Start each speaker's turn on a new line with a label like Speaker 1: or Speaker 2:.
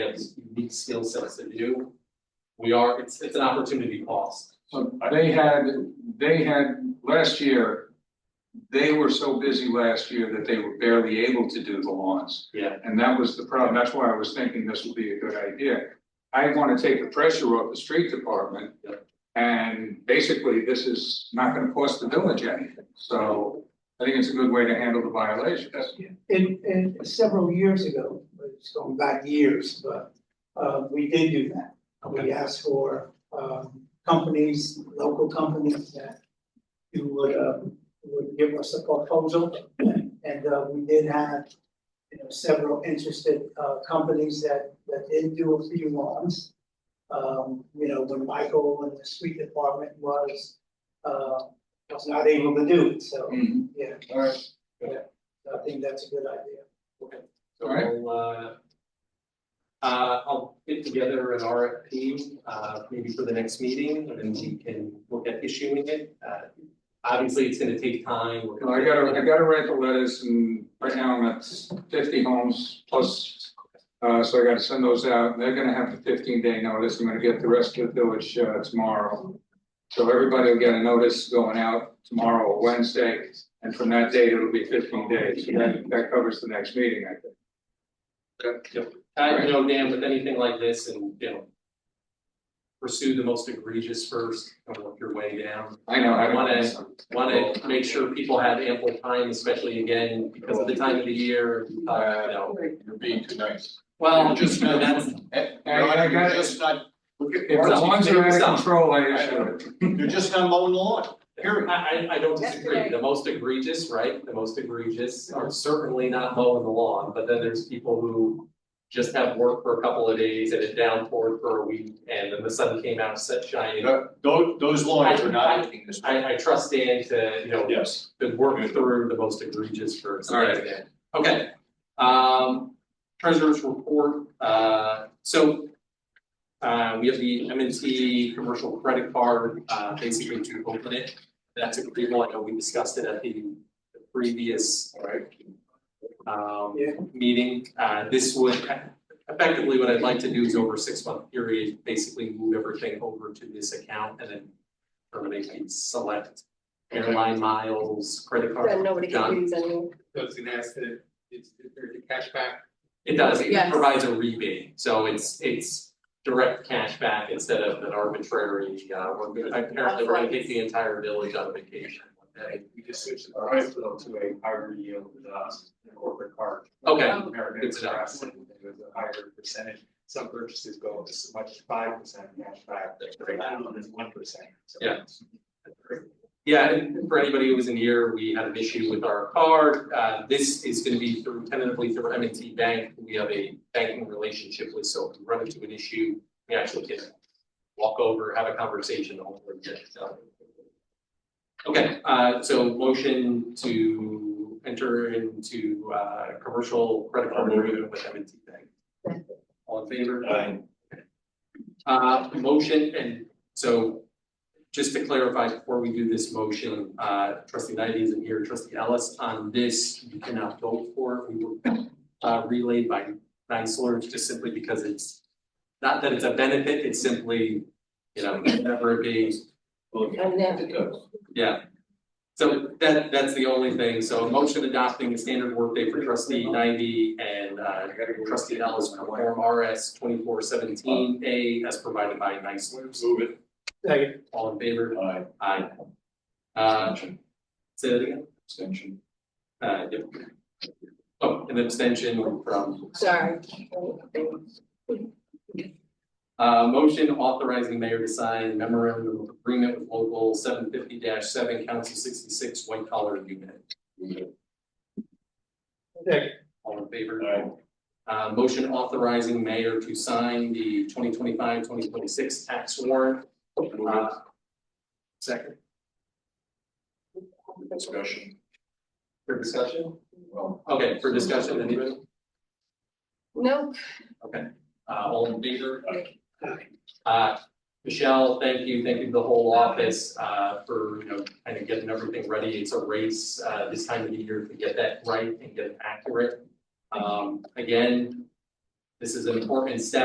Speaker 1: has unique skill sets that do. We are, it's it's an opportunity cost.
Speaker 2: So they had, they had, last year, they were so busy last year that they were barely able to do the lawns.
Speaker 1: Yeah.
Speaker 2: And that was the problem, that's why I was thinking this would be a good idea. I wanna take the pressure off the street department.
Speaker 1: Yep.
Speaker 2: And basically, this is not gonna cost the village anything, so I think it's a good way to handle the violation, that's.
Speaker 3: And, and several years ago, it's going back years, but, uh, we did do that. We asked for, um, companies, local companies that who would, uh, would give us a proposal. And, uh, we did have, you know, several interested, uh, companies that, that did do a few lawns. Um, you know, when Michael and the street department was, uh, was not able to do it, so, yeah.
Speaker 2: Alright.
Speaker 3: I think that's a good idea.
Speaker 1: So
Speaker 2: Alright.
Speaker 1: we'll uh. Uh, I'll get together an RFP, uh, maybe for the next meeting, and then we can look at issuing it, uh. Obviously, it's gonna take time. We're
Speaker 2: Oh, I
Speaker 1: gonna-
Speaker 2: gotta, I gotta write the letters and right now I'm at fifty homes plus. Uh, so I gotta send those out. They're gonna have the fifteen day notice. I'm gonna get the rest of the village uh, tomorrow. So everybody will get a notice going out tomorrow or Wednesday, and from that date, it'll be fifteen days. So That, that covers the next meeting, I think.
Speaker 1: I you know, Dan, with anything like this and, you know. Pursue the most egregious first and work your way down.
Speaker 2: I know, I
Speaker 1: Wanna-
Speaker 2: don't.
Speaker 1: Want to make sure people have ample time, especially again, because of the time of the year, uh, you know.
Speaker 4: You're being too nice.
Speaker 1: Well, just, you know, that's,
Speaker 4: Eh,
Speaker 2: I-
Speaker 4: no,
Speaker 2: I got
Speaker 4: You're
Speaker 2: it.
Speaker 4: just not, look at,
Speaker 2: If the lawns are out of control, I issue it.
Speaker 4: you're just not mowing the lawn.
Speaker 1: Here, I, I, I don't disagree, the most egregious, right, the most egregious are certainly not mowing the lawn, but then there's people who. Just have work for a couple of days and it downpoured for a week, and then the sun came out, set shining. I,
Speaker 4: Those, those lawns are
Speaker 1: I-
Speaker 4: not looking this way.
Speaker 1: I trust Dan to, you know,
Speaker 4: Yes.
Speaker 1: to work through the most egregious first.
Speaker 2: All right.
Speaker 1: Yeah. Okay, um, treasurer's report, uh, so. Uh, we have the M and T commercial credit card, uh, basically to open it, that's a great one, I know we discussed it at the the previous. Um,
Speaker 3: Yeah.
Speaker 1: meeting, uh, this would effectively, what I'd like to do is over a six month period, basically move everything over to this account and then. Terminate and select airline miles, credit card.
Speaker 5: Then nobody
Speaker 1: John.
Speaker 5: can use any.
Speaker 6: So it's an asset, it's, there's a cashback.
Speaker 1: It does, it
Speaker 5: Yes.
Speaker 1: provides a rebate, so it's it's direct cash back instead of an arbitrary, uh, we're gonna- apparently we're gonna take the entire village on vacation one day.
Speaker 6: We just switched the hospital to a higher yield, uh, corporate card.
Speaker 1: Okay.
Speaker 6: American
Speaker 1: Good to know.
Speaker 6: Express, and it was a higher percentage, some purchases go up as much as five percent cashback, right now it's one percent, so.
Speaker 1: Yeah. Yeah, and for anybody who was in here, we had an issue with our card, uh, this is gonna be through tentatively through M and T Bank, who we have a banking relationship with, so if we run into an issue, we actually can walk over, have a conversation, hopefully get it done. Okay, uh, so motion to enter into, uh, commercial credit card agreement with M and T Bank. All in favor?
Speaker 6: Aye.
Speaker 1: Uh, motion, and so just to clarify before we do this motion, uh, trustee Knight isn't here, trustee Ellis, on this, you cannot vote for it. We were uh, relayed by Geisler, just simply because it's, not that it's a benefit, it's simply, you know, whatever it be.
Speaker 5: And then,
Speaker 4: uh,
Speaker 1: Yeah. So that, that's the only thing. So a motion adopting the standard workday for trustee ninety and uh, trustee Ellis for form RS twenty-four seventeen A as provided by Geisler.
Speaker 4: Move it.
Speaker 3: Second.
Speaker 1: All in favor?
Speaker 4: Aye.
Speaker 1: Aye. Uh,
Speaker 4: Extension,
Speaker 1: say that again?
Speaker 4: extension.
Speaker 1: Uh, yep. Oh, an abstention from,
Speaker 5: sorry.
Speaker 1: uh, motion authorizing mayor to sign memorandum of agreement with local seven fifty seven, council sixty-six, white collar unit.
Speaker 4: Move it.
Speaker 1: All in favor?
Speaker 4: Aye.
Speaker 1: Uh, motion authorizing mayor to sign the 2025-2026 tax warrant. Uh, Second,
Speaker 4: Discussion,
Speaker 1: for discussion?
Speaker 4: well,
Speaker 1: Okay, for discussion, anybody?
Speaker 5: Nope,
Speaker 1: Uh, all in favor? Uh, Michelle, thank you, thank you to the whole office, uh, for, you know, kind of getting everything ready. It's a race, uh, this time of the year to get that right and get it accurate. Um, again, This is an important step